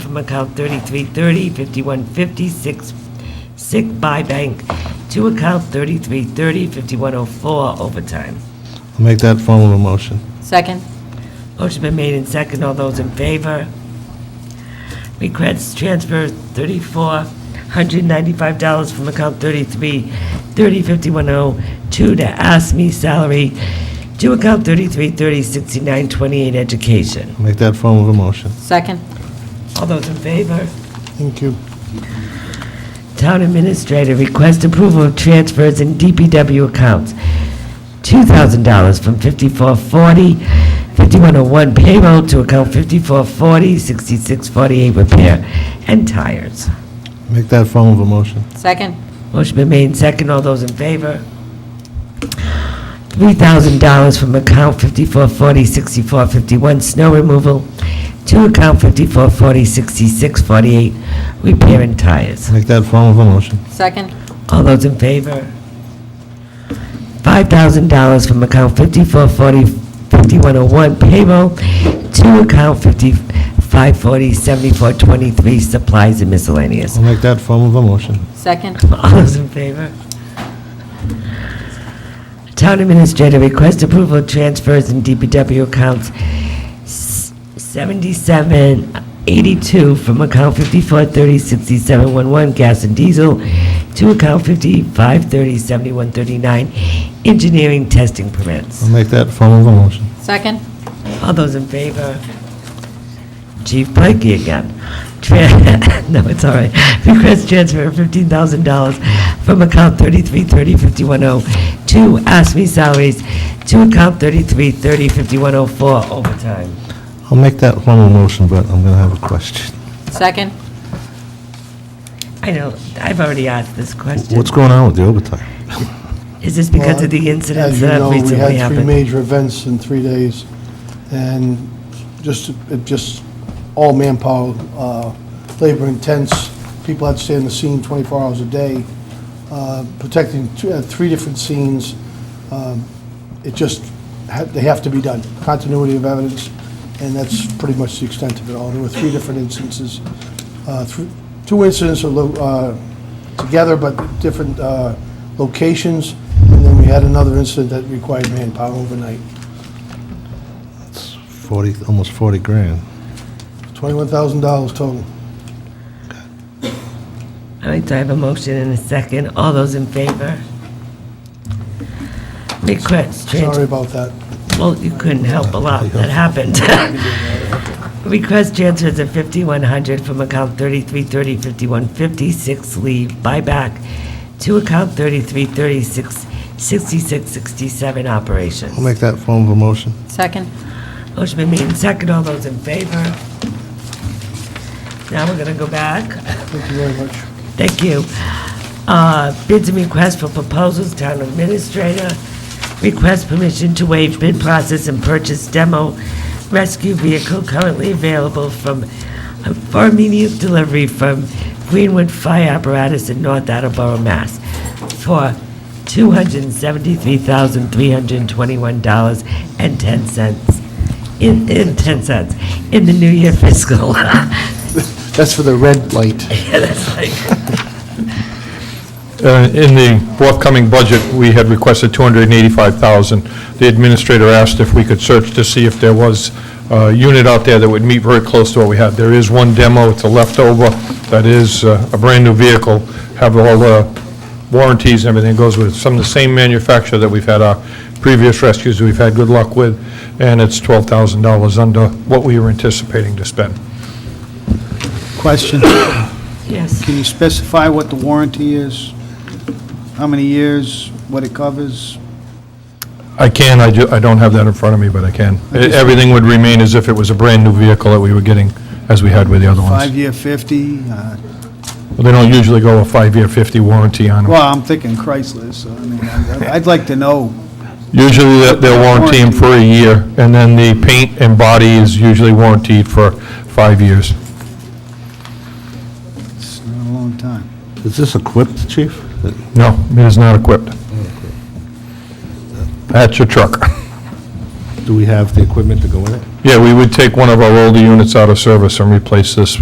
from account 3330, 5150, 6, sick buy bank to account 3330, 5104, overtime. I'll make that form of a motion. Second? Motion been made in second. All those in favor? Request transfer thirty-four hundred ninety-five dollars from account thirty-three thirty fifty-one oh two to ask me salary to account thirty-three thirty sixty-nine twenty-eight education. I'll make that form of a motion. Second? All those in favor? Thank you. Town Administrator, request approval of transfers in DPW accounts. $2,000 from 5440, 5101 payroll to account 5440, 6648 repair, and tires. Make that form of a motion. Second? Motion been made and second. All those in favor? $3,000 from account 5440, 6451 snow removal to account 5440, 6648 repair and tires. Make that form of a motion. Second? All those in favor? $5,000 from account 5440-5101 payroll to account 5540-7423 supplies and miscellaneous. I'll make that form of a motion. Second? All those in favor? Town Administrator, request approval of transfers in DPW accounts s- 7782 from account 54306711 gas and diesel to account 55307139 engineering testing permits. I'll make that form of a motion. Second? All those in favor? Chief Pikey again. Tran- No, it's all right. Request transfer of $15,000 from account 3330-5102, ASME salaries, to account 3330-5104, overtime. I'll make that form of a motion, but I'm going to have a question. Second? I know, I've already asked this question. What's going on with the overtime? Is this because of the incidents that have As you know, recently we had three happened? major events in three days, and just, it just, all manpower, uh, labor intense, people had to stay on the scene 24 hours a day, uh, protecting two- uh, three different scenes. Um, It just, ha- they have to be done, continuity of evidence, and that's pretty much the extent of it all. There were three different instances, uh, thr- two incidents are lo- uh, together, but different uh, locations, and then we had another incident that required manpower overnight. It's 40, almost 40 grand. $21,000 total. All right, so I have a motion and a second. All those in favor? Request transfer. Sorry about that. Well, you couldn't help a lot that happened. Request transfers of 5,100 from account 3330, 5156 leave buyback to account 3330, 6667 operations. I'll make that form of a motion. Second? Motion been made and second. All those in favor? Now we're going to go back. Thank you very much. Thank you. Uh, Bids and requests for proposals, town administrator. Request permission to waive bid process and purchase demo rescue vehicle currently available from, for immediate delivery from Greenwood Fire Apparatus in North Attleboro, Mass. for $273,321.10 in, in 10 cents, in the new year fiscal. That's for the red light. That's like- Uh, In the forthcoming budget, we had requested 285,000. The administrator asked if we could search to see if there was a unit out there that would meet very close to what we had. There is one demo, it's a leftover, that is uh, a brand-new vehicle, have all the warranties, and everything goes with it. Some of the same manufacturer that we've had our previous rescues, we've had good luck with, and it's $12,000 under what we were anticipating to spend. Question, Yes. can you specify what the warranty is? How many years, what it covers? I can, I do, I don't have that in front of me, but I can. E- Everything would remain as if it was a brand-new vehicle that we were getting, as we had with the other ones. Five-year, 50? Uh, But They don't usually go a five-year, 50 warranty on them. Well, I'm thinking Chrysler, so I mean, I'd I'd like to know. Usually, they're- they're warranty them for a year, and then the paint and body is usually warranted for five years. It's not a long time. Is this equipped, chief? No, it is not equipped. That's your truck. Do we have the equipment to go in it? Yeah, we would take one of our older units out of service and replace this